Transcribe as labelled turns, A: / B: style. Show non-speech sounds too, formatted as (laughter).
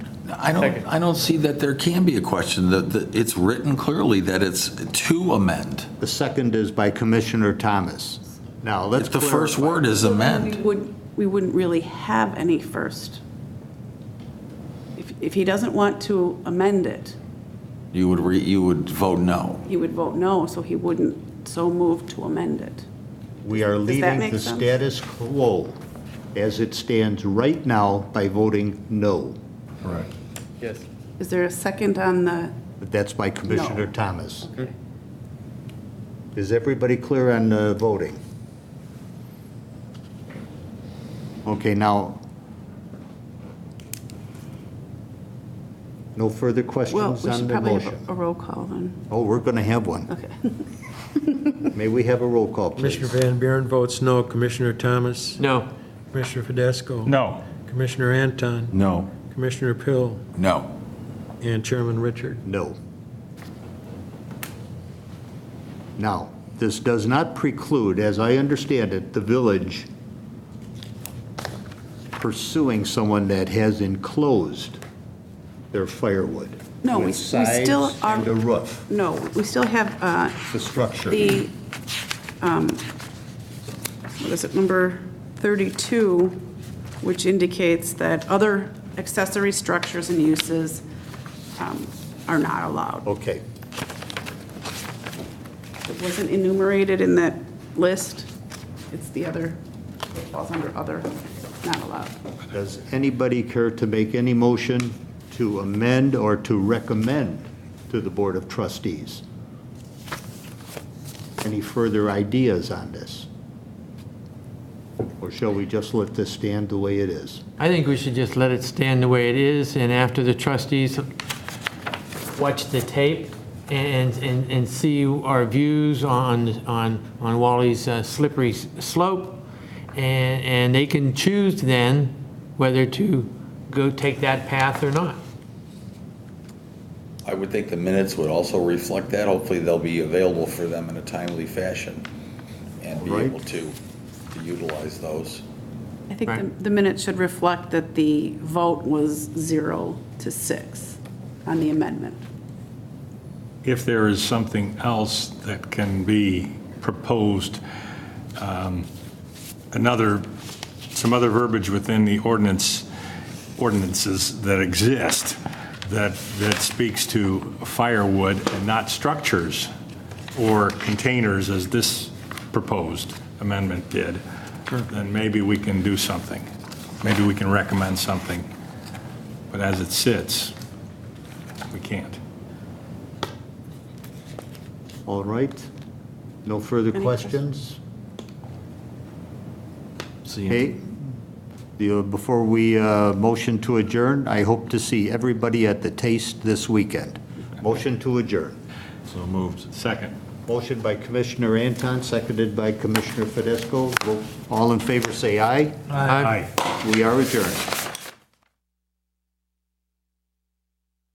A: I don't,
B: Second.
A: I don't see that there can be a question. The- the- It's written clearly that it's to amend.
C: The second is by Commissioner Thomas. Now, let's
A: If the first
C: clarify.
A: word is
D: We
A: amend,
D: would, we wouldn't really have any first. If, if he doesn't want to amend it,
A: you would, re- you would vote no.
D: he would vote no, so he wouldn't so move to amend it.
C: We are
D: that
C: leaving
D: make
C: the
D: sense?
C: status quo as it stands right now by voting no.
B: Yes.
D: Is there a second on the,
C: That's by Commissioner Thomas. Is everybody clear on uh, voting? Okay, now, no further
D: well,
C: questions
D: we
C: on
D: should
C: the
D: probably
C: motion?
D: have a roll call then.
C: Oh, we're going to have
D: (laughs)
C: one.
D: Okay.
C: May we have a roll call, please?
E: Commissioner Van Buren votes no. Commissioner Thomas?
B: No.
E: Commissioner Fidesco? No. Commissioner Anton?
A: No.
E: Commissioner Pill?
A: No.
E: And Chairman Richard?
C: No. Now, this does not preclude, as I understand it, the village pursuing someone that has enclosed their firewood.
D: No,
C: with
D: we- we still
C: sides
D: are-
C: And a roof,
D: No, we still have uh,
C: the structure.
D: the, um, what is it, number 32, which indicates that other accessory structures and uses um, are not allowed.
C: Okay,
D: It wasn't enumerated in that list. It's the other, it falls under other, not allowed.
C: does anybody care to make any motion to amend or to recommend to the Board of Trustees? Any further ideas on this? Or shall we just let this stand the way it is?
B: I think we should just let it stand the way it is, and after the trustees watch the tape and, and, and see our views on, on, on Wally's uh, slippery s- slope, and, and they can choose then whether to go take that path or not.
F: I would think the minutes would also reflect that. Hopefully, they'll be available for them in a timely fashion and be
C: Right.
F: able to to utilize those.
D: I think the-
B: Right.
D: the minutes should reflect that the vote was zero to six on the amendment.
G: if there is something else that can be proposed, um, another, some other verbiage within the ordinance, ordinances that exist that, that speaks to firewood and not structures or containers as this proposed amendment did, then maybe we can do something. Maybe we can recommend something. But as it sits, we can't.
C: All right? No further
D: Any
C: questions? Hey, you- before we uh, motion to adjourn, I hope to see everybody at the Taste this weekend. Motion to adjourn.
G: Second.
C: Motion by Commissioner Anton, seconded by Commissioner Fidesco. All in favor, say aye.
G: Aye.
C: We are adjourned.